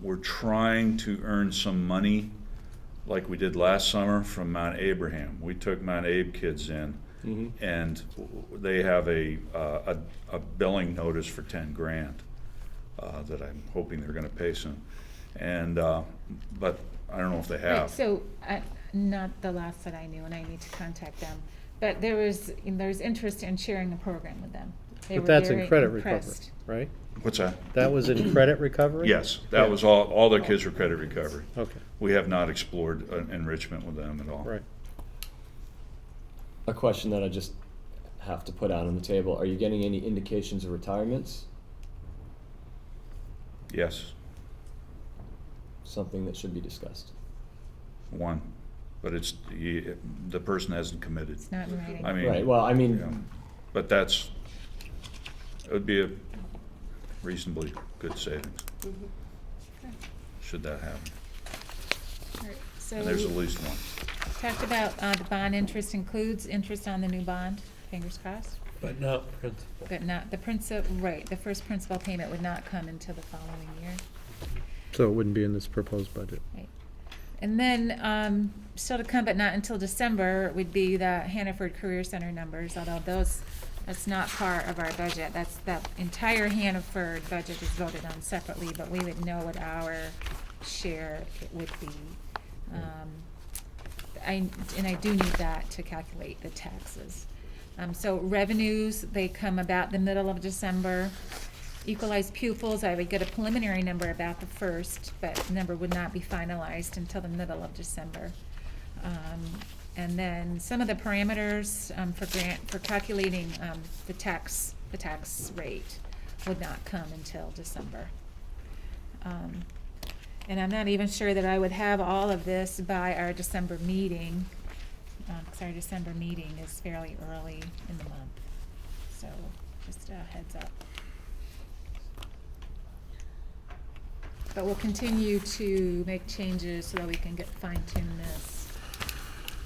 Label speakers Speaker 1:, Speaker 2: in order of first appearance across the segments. Speaker 1: we're trying to earn some money like we did last summer from Mount Abraham. We took Mount Abe kids in
Speaker 2: Mm-hmm.
Speaker 1: and w- w- they have a, uh, a, a billing notice for ten grand uh, that I'm hoping they're gonna pay soon. And, uh, but I don't know if they
Speaker 3: Right,
Speaker 1: have.
Speaker 3: so, uh, not the last that I knew, and I need to contact them, but there was, there's interest in sharing a program with them. They
Speaker 4: But
Speaker 3: were
Speaker 4: that's in
Speaker 3: very
Speaker 4: credit recovery,
Speaker 3: impressed.
Speaker 4: right?
Speaker 1: What's that?
Speaker 4: That was in credit recovery?
Speaker 1: Yes, that
Speaker 4: Yeah.
Speaker 1: was all, all their kids were credit recovery.
Speaker 4: Okay,
Speaker 1: We have not explored uh, enrichment with them at all.
Speaker 4: right.
Speaker 2: A question that I just have to put out on the table. Are you getting any indications of retirements?
Speaker 1: Yes,
Speaker 2: Something that should be discussed.
Speaker 1: one, but it's, you- the person hasn't committed.
Speaker 3: It's not in writing.
Speaker 1: I mean.
Speaker 2: Right, well, I mean,
Speaker 1: yeah, But that's, it would be a reasonably good savings, should that happen.
Speaker 3: Alright,
Speaker 1: And there's
Speaker 3: So,
Speaker 1: at least one.
Speaker 3: talked about, uh, the bond interest includes interest on the new bond, fingers crossed,
Speaker 5: But not principal.
Speaker 3: but not, the principal, right, the first principal payment would not come until the following year.
Speaker 4: So it wouldn't be in this proposed budget.
Speaker 3: Right. And then, um, still to come, but not until December, would be the Hannaford Career Center numbers, although those, that's not part of our budget. That's, that entire Hannaford budget is voted on separately, but we would know what our share it would be. Um, I, and I do need that to calculate the taxes. Um, so revenues, they come about the middle of December. Equalized pupils, I would get a preliminary number about the first, but the number would not be finalized until the middle of December. Um, and then some of the parameters, um, for grant, for calculating, um, the tax, the tax rate would not come until December. Um, And I'm not even sure that I would have all of this by our December meeting, um, 'cause our December meeting is fairly early in the month. So, just a heads up. But we'll continue to make changes so that we can get fine tune this.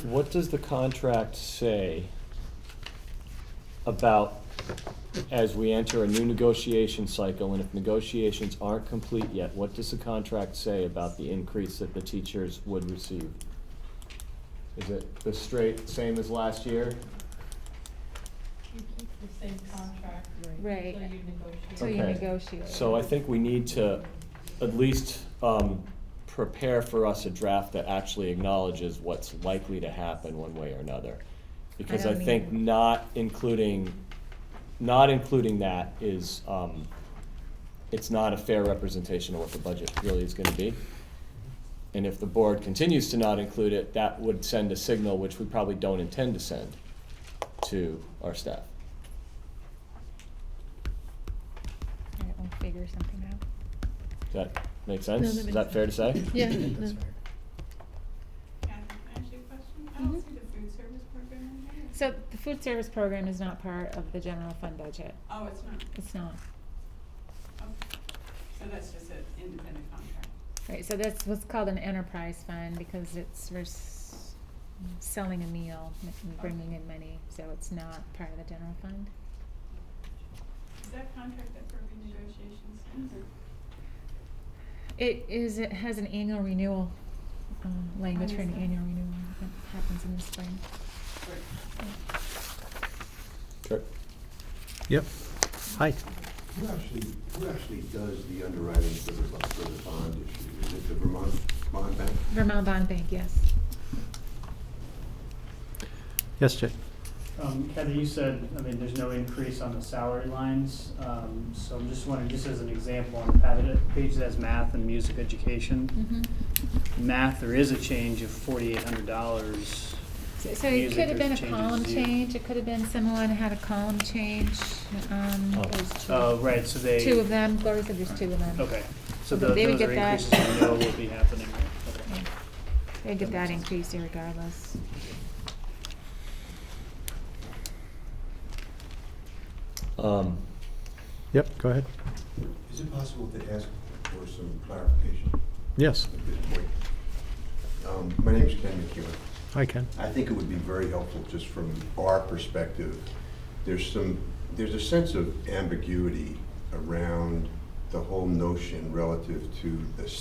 Speaker 2: what does the contract say about as we enter a new negotiation cycle, and if negotiations aren't complete yet, what does the contract say about the increase that the teachers would receive? Is it the straight, same as last year?
Speaker 6: You keep the same contract.
Speaker 3: Right.
Speaker 6: Until you negotiate.
Speaker 3: So you
Speaker 2: Okay.
Speaker 3: negotiate.
Speaker 2: So I think we need to at least um, prepare for us a draft that actually acknowledges what's likely to happen one way or another. Because I
Speaker 3: don't
Speaker 2: think
Speaker 3: either.
Speaker 2: not including, not including that is, um, it's not a fair representation of what the budget really is gonna be. And if the board continues to not include it, that would send a signal, which we probably don't intend to send, to our staff.
Speaker 3: All right, We'll figure something out.
Speaker 2: Does that make sense?
Speaker 7: that
Speaker 2: Is that fair to say?
Speaker 7: Yeah, no.
Speaker 6: Kathy, can I ask you a question? I don't see the food service program in here.
Speaker 3: Mm-hmm. So the food service program is not part of the general fund budget.
Speaker 6: Oh, it's not.
Speaker 3: It's not.
Speaker 6: Okay. So that's just an independent contract.
Speaker 3: Right, so that's what's called an enterprise fund because it's, we're s- selling a meal and bringing in money, so it's not part of the general fund.
Speaker 6: Is that contract up for renegotiation soon? or-
Speaker 3: It is, it has an annual renewal, um, language for an
Speaker 6: Understood.
Speaker 3: annual renewal that happens in the spring.
Speaker 2: Sure.
Speaker 4: Yep. Hi.
Speaker 8: Who actually, who actually does the underwriting for the, bu- for the bond issue? Is it the Vermont, Vermont Bank?
Speaker 3: Vermont Bond Bank, yes.
Speaker 4: Yes, Jay.
Speaker 9: Um, Kathy, you said, I mean, there's no increase on the salary lines, um, so I'm just wondering, just as an example, on the pad- page that has math and music education,
Speaker 3: Mm-hmm.
Speaker 9: math, there is a change of forty-eight hundred dollars.
Speaker 3: So- So it could have been a column change, it could have been someone had a column change, um,
Speaker 2: Oh.
Speaker 9: Oh, right, so they.
Speaker 3: two of them, Gloria said there's two of them.
Speaker 9: Okay, so
Speaker 3: They
Speaker 9: tho-
Speaker 3: would
Speaker 9: those
Speaker 3: get
Speaker 9: are
Speaker 3: that.
Speaker 9: increases I know will be happening, right? Okay.
Speaker 3: Yeah. They get that increased regardless.
Speaker 2: Um,
Speaker 4: Yep, go ahead.
Speaker 8: Is it possible to ask for some clarification
Speaker 4: Yes,
Speaker 8: at this point? Um, My name is Ken McEwen.
Speaker 4: I can.
Speaker 8: I think it would be very helpful, just from our perspective, there's some, there's a sense of ambiguity around the whole notion relative to the